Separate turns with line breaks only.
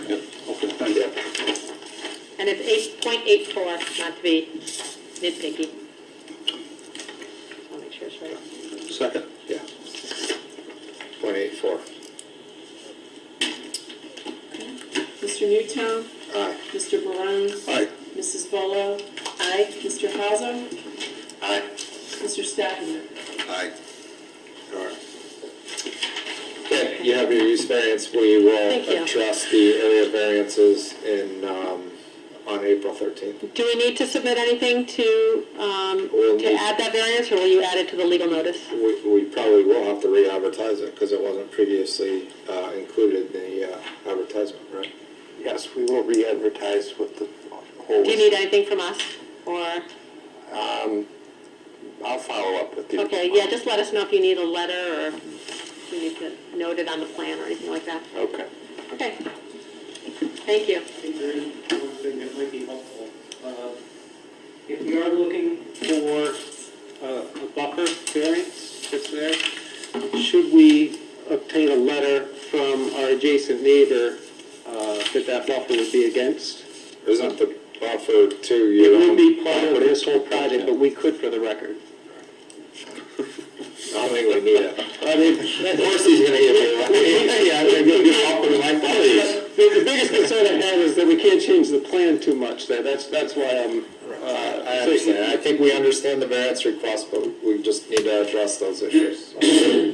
and it's eight point eight four, not to be nitpicky. I'll make sure it's right.
Second.
Yeah. Point eight four.
Mr. Newtown,
Aye.
Mr. Barone,
Aye.
Mrs. Volo,
Aye,
Mr. Haza,
Aye.
Mr. Stafford.
Aye.
All right. Okay, you have your use variance, we
Thank
will
you.
address the area variances in, um, on April thirteenth.
do we need to submit anything to, um,
Well,
to
we-
add that variance, or will you add it to the legal notice?
We, we probably will have to re-advertise it, because it wasn't previously, uh, included in the, uh, advertisement, right?
Yes, we will re-advertise with the whole.
Do you need anything from us, or?
Um, I'll follow up with you.
Okay, yeah, just let us know if you need a letter or if you need to note it on the plan or anything like that.
Okay.
Okay. Thank you.
I think there is one thing that might be helpful. Uh, If we are looking for uh, a buffer variance that's there, should we obtain a letter from our adjacent neighbor uh, that that buffer would be against?
Isn't the buffer to
It
your own?
would be part of
property?
this whole project, but we could for the record.
I don't think we need it.
I mean,
Of course he's gonna give you one.
Yeah, I mean, The the biggest concern I have is that we can't change the plan too much there. That's, that's why I'm.
Uh, I understand, I think we understand the variance request, but we just need to address those issues.